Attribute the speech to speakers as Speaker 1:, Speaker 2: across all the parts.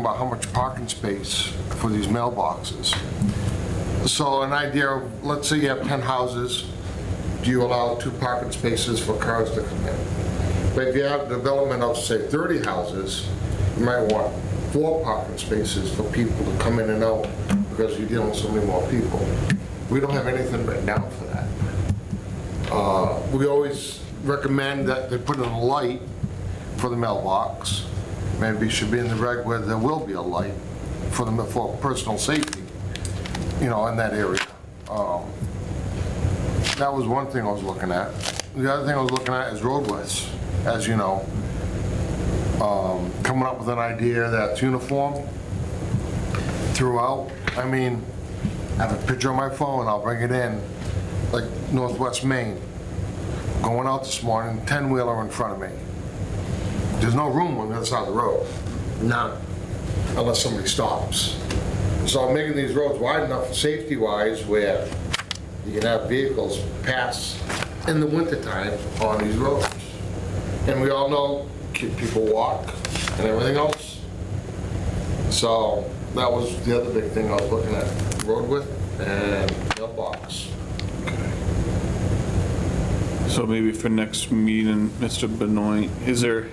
Speaker 1: about how much parking space for these mailboxes. So an idea of, let's say you have 10 houses, do you allow two parking spaces for cars to come in? But if you have a development of, say, 30 houses, you might want four parking spaces for people to come in and out because you're dealing with so many more people. We don't have anything right now for that. Uh, We always recommend that they put in a light for the mailbox. Maybe it should be in the reg where there will be a light for the, for personal safety, you know, in that area. Um, That was one thing I was looking at. The other thing I was looking at is roadways, as you know. Um, Coming up with an idea that's uniform throughout. I mean, I have a picture on my phone, I'll bring it in, like Northwest Maine. Going out this morning, 10-wheeler in front of me. There's no room on the other side of the road. None. Unless somebody stops. So I'm making these roads wide enough, safety-wise, where you can have vehicles pass in the wintertime on these roads. And we all know, ki- people walk and everything else. So that was the other big thing I was looking at, road width and mailbox.
Speaker 2: So maybe for next meeting, Mr. Benoit, is there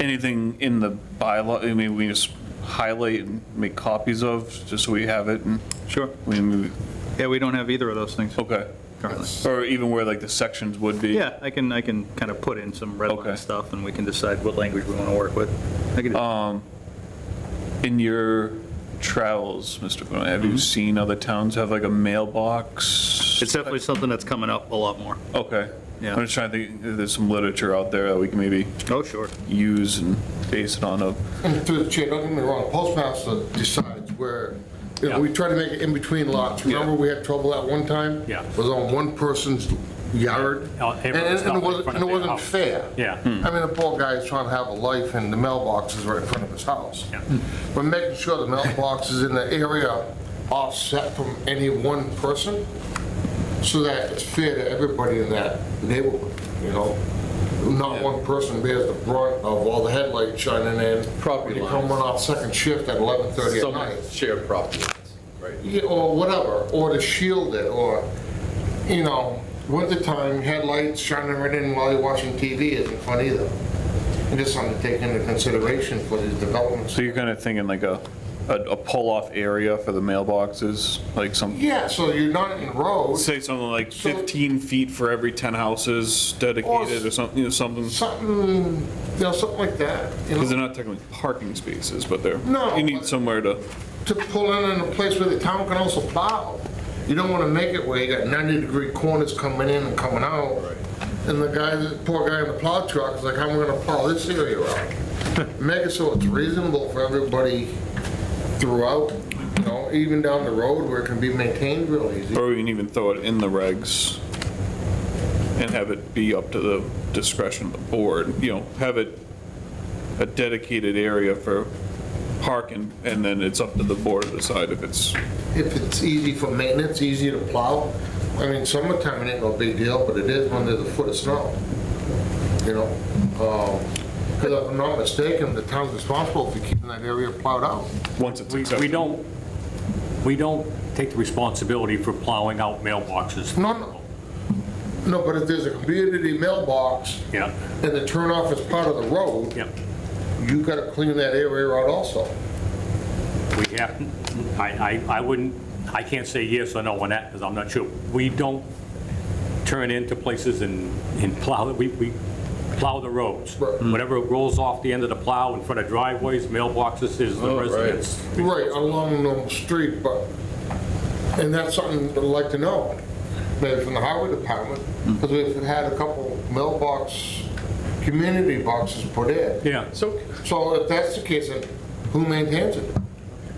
Speaker 2: anything in the bylaw, I mean, we just highlight and make copies of, just so we have it and,
Speaker 3: Sure.
Speaker 2: I mean, we-
Speaker 3: Yeah, we don't have either of those things
Speaker 2: okay.
Speaker 3: currently.
Speaker 2: Or even where like the sections would be?
Speaker 3: Yeah, I can, I can kind of put in some red
Speaker 2: Okay.
Speaker 3: line stuff and we can decide what language we want to work with. I could-
Speaker 2: In your travels, Mr. Benoit, have you
Speaker 3: Mm-hmm.
Speaker 2: seen other towns have like a mailbox?
Speaker 3: It's definitely something that's coming up a lot more.
Speaker 2: Okay.
Speaker 3: Yeah.
Speaker 2: I'm just trying to think, there's some literature out there that we can maybe
Speaker 3: Oh, sure.
Speaker 2: use and base it on a,
Speaker 1: And through the chair, don't get me wrong, postmaster decides where, you know, we try to make it in between lots. Remember, we had trouble that one time?
Speaker 4: Yeah.
Speaker 1: It was on one person's yard.
Speaker 4: Yeah,
Speaker 1: And
Speaker 4: everyone
Speaker 1: and
Speaker 4: stopped
Speaker 1: it
Speaker 4: in
Speaker 1: wasn't, and
Speaker 4: front of
Speaker 1: it
Speaker 4: their
Speaker 1: wasn't
Speaker 4: house.
Speaker 1: fair.
Speaker 4: Yeah.
Speaker 1: I mean, the poor guy is trying to have a life, and the mailbox is right in front of his house.
Speaker 4: Yeah.
Speaker 1: But making sure the mailbox is in the area offset from any one person, so that it's fair to everybody in that neighborhood, you know? Not one person bears the brunt of all the headlights shining in.
Speaker 5: Property
Speaker 1: When You come
Speaker 5: lines.
Speaker 1: off second shift at 11:30 at
Speaker 5: Some
Speaker 1: night.
Speaker 5: shared property lines, right?
Speaker 1: Yeah, Or whatever, or to shield it, or, you know, wintertime headlights shining right in while you're watching TV isn't fun either. And just something to take into consideration for these developments.
Speaker 2: So you're kind of thinking like a, a a pull-off area for the mailboxes, like some,
Speaker 1: Yeah, so you're not in the road,
Speaker 2: say something like
Speaker 1: So-
Speaker 2: 15 feet for every 10 houses dedicated or something, you know, something,
Speaker 1: something, you know, something like that, you
Speaker 2: because
Speaker 1: know,
Speaker 2: they're not technically parking spaces, but they're,
Speaker 1: No,
Speaker 2: you need
Speaker 1: but-
Speaker 2: somewhere to,
Speaker 1: to pull in in a place where the town can also plow. You don't wanna make it where you got ninety degree corners coming in and coming out. And the guy, the poor guy in the plow truck is like, how am I gonna plow this area out? Make it so it's reasonable for everybody throughout, you know, even down the road where it can be maintained real easy.
Speaker 2: or we can even throw it in the regs and have it be up to the discretion of the board, you know, have it a dedicated area for parking, and then it's up to the board to decide if it's,
Speaker 1: If it's easy for maintenance, easy to plow, I mean, summertime it ain't no big deal, but it is when there's a foot of snow, you know? Because if I'm not mistaken, the town's responsible for keeping that area plowed out.
Speaker 2: once it's
Speaker 4: We
Speaker 2: accepted.
Speaker 4: we don't, we don't take the responsibility for plowing out mailboxes.
Speaker 1: No, no. No, but if there's a community mailbox
Speaker 4: Yeah,
Speaker 1: and the turnoff is part of the road,
Speaker 4: yeah.
Speaker 1: you gotta clean that area out also.
Speaker 4: We have, I, I, I wouldn't, I can't say yes or no on that, because I'm not sure. We don't turn into places and, and plow, we, we plow the roads.
Speaker 1: Right. Mm.
Speaker 4: Whatever rolls off the end of the plow in front of driveways, mailboxes, is the
Speaker 5: Oh, right.
Speaker 4: residents.
Speaker 1: Right, along the street, but, and that's something I'd like to know, maybe from the highway department,
Speaker 4: Mm.
Speaker 1: because we've had a couple mailbox, community boxes put in.
Speaker 4: Yeah,
Speaker 5: So,
Speaker 1: So if that's the case, then who maintains it?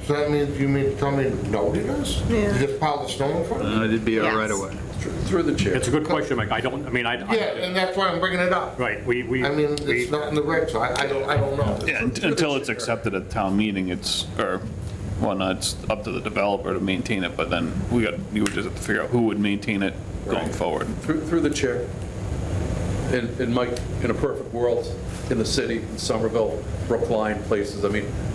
Speaker 1: So that means, you mean, to tell me nobody does?
Speaker 6: Yeah.
Speaker 1: You just pile the snow in front of it?
Speaker 3: Uh, It'd be a
Speaker 6: Yes.
Speaker 3: right of way.
Speaker 5: through through the chair,
Speaker 4: it's a good question, Mike. I don't, I mean, I. I-
Speaker 1: Yeah, and that's why I'm bringing it up.
Speaker 4: Right, we, we.
Speaker 1: I mean,
Speaker 4: we-
Speaker 1: it's not in the regs, so I, I don't, I don't know.
Speaker 2: Yeah, un- until it's accepted at town meeting, it's, or, well, no, it's up to the developer to maintain it, but then we got, you would just have to figure out who would maintain it going forward.
Speaker 5: through through the chair. And, and Mike, in a perfect world, in the city, in Somerville, Brookline, places, I mean,